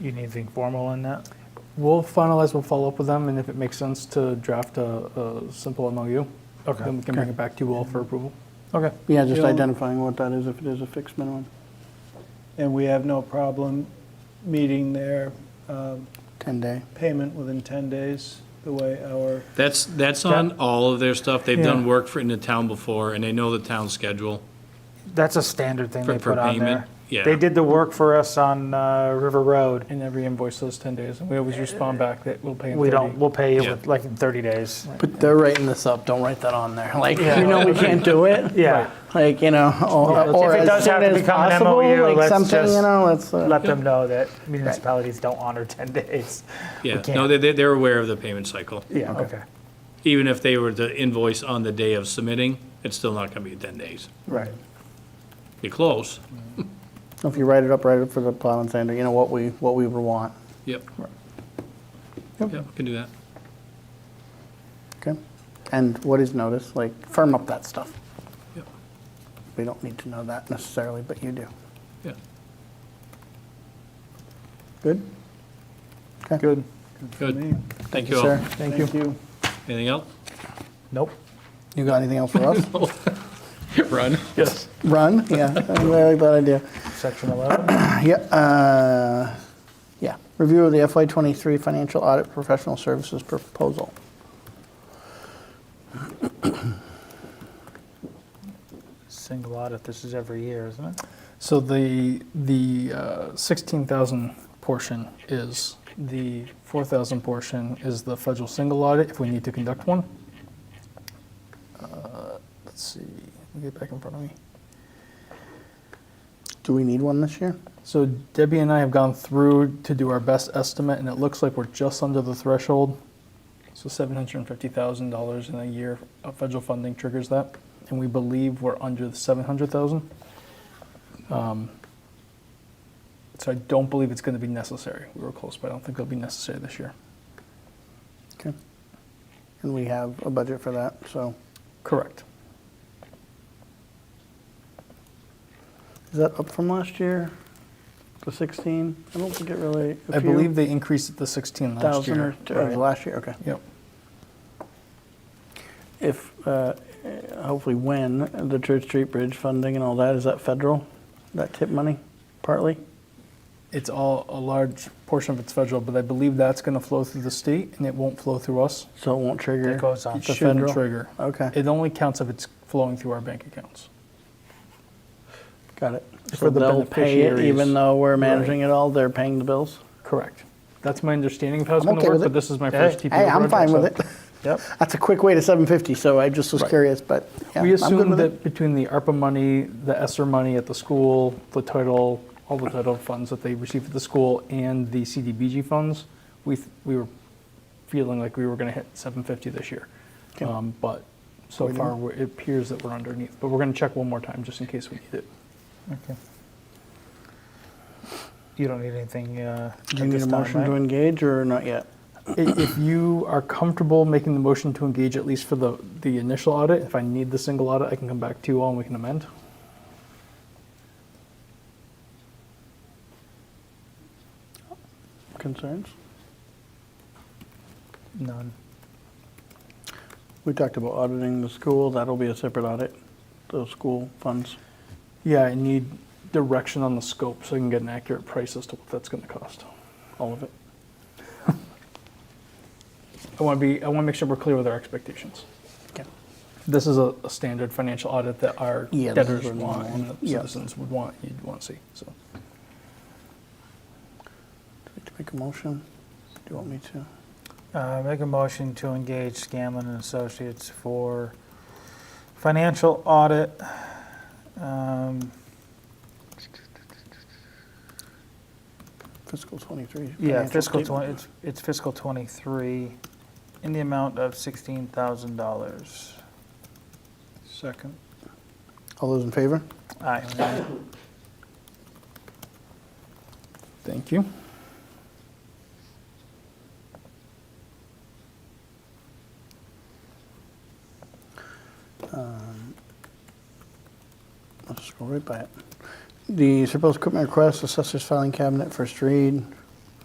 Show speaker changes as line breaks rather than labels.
You need anything formal in that?
We'll finalize, we'll follow up with them, and if it makes sense to draft a, a simple MOU,
Okay.
then we can bring it back to you all for approval.
Okay.
Yeah, just
Bill?
identifying what that is, if it is a fixed minimum,
And we have no problem meeting their um,
10-day.
payment within 10 days, the way our,
That's, that's on all of their stuff. They've done
Yeah.
work for, in the town before, and they know the town's schedule.
That's a standard thing
For-
they
for
put on
payment,
there.
yeah.
They did the work for us on uh, River Road.
And every invoice says 10 days, and we always respond back that we'll pay in
We
30.
don't, we'll pay you
Yeah.
with, like in 30 days.
But they're writing this up, don't write that on there. Like, you know, we can't do it.
Yeah,
Like, you know, or, or
If it
as
does have
soon
to
as
become an
possible,
MOU,
like
let's
something,
just
you know, let's, uh,
let them know that municipalities don't honor 10 days.
Yeah,
can't-
no, they, they- they're aware of the payment cycle.
Yeah, okay.
Even if they were to invoice on the day of submitting, it's still not gonna be ten days.
right.
You're close,
If you write it up, write it up for the plow and sander, you know, what we, what we would want,
yep. Yep, can do that.
okay? And what is notice, like, firm up that stuff.
Yep,
We don't need to know that necessarily, but you do.
yeah.
Good?
good.
Good. Thank you all.
Sir,
Thank you.
Anything else?
Nope.
you got anything else for us?
Run.
Yes.
Run, yeah, I like that idea.
Section 11,
Yeah, uh, yeah. Review of the FY twenty-three financial audit professional services proposal.
single audit, this is every year, isn't it?
So the, the uh, 16,000 portion is, the 4,000 portion is the federal single audit, if we need to conduct one. Uh, Let's see, let me get back in front of me.
Do we need one this year?
So Debbie and I have gone through to do our best estimate, and it looks like we're just under the threshold. So seven hundred and fifty thousand dollars in a year of federal funding triggers that, and we believe we're under the seven hundred thousand. Um, So I don't believe it's gonna be necessary. We were close, but I don't think it'll be necessary this year.
Okay. And we have a budget for that, so
Correct.
is that up from last year? The sixteen? I don't think it really. a
I
few
believe they increased it to sixteen last
Thousand
year.
or, or
Right.
last year, okay.
Yep.
If, uh, hopefully when, the Church Street Bridge funding and all that, is that federal? That tip money, partly?
It's all, a large portion of it's federal, but I believe that's gonna flow through the state and it won't flow through us.
So it won't trigger?
It goes on.
It
The
shouldn't
federal?
trigger.
Okay.
It only counts if it's flowing through our bank accounts.
Got it.
For
So
the
they'll pay it
beneficiaries.
even though we're managing it all, they're paying the bills?
Correct. That's my understanding of how it's
I'm
going
okay
to work, but
with it.
this is my
Hey,
first TPO
Hey, I'm
project,
fine with
so-
it.
Yep.
That's a quick way to seven fifty, so I just was
Right.
curious, but yeah,
We
I'm good
assume
with
that
it.
between the ARPA money, the ESSER money at the school, the title, all the title funds that they receive at the school, and the CDBG funds, we, th- we were feeling like we were going to hit 750 this year.
Okay.
Um, But so
We
far, we're- it appears that we're underneath, but we're going to check one more time just in case we need it.
Okay. You don't need anything uh, at
Do you need
this
a
time,
motion
right?
to engage or not yet?
I- If you are comfortable making the motion to engage at least for the, the initial audit, if I need the single audit, I can come back to you all and we can amend.
Concerns?
None.
We talked about auditing the school, that'll be a separate audit, those school funds.
Yeah, I need direction on the scope so I can get an accurate price as to what that's gonna cost, all of it. I wanna be, I wanna make sure we're clear with our expectations.
Okay.
This is a, a standard financial audit that our
Yeah, this is
debtors
what we
want and
want.
the
Yeah.
citizens would want, you'd wanna see, so.
Do we have to make a motion? Do you want me to?
Uh, Make a motion to engage Scanlon and Associates for financial audit. um,
Fiscal twenty-three.
Yeah,
financial
fiscal
statement.
20, it's- it's fiscal 23, in the amount of $16,000.
Second.
All those in favor?
Aye.
Thank you.
Um, I'll just go right by it. The surplus equipment request, assessor's filing cabinet, first read.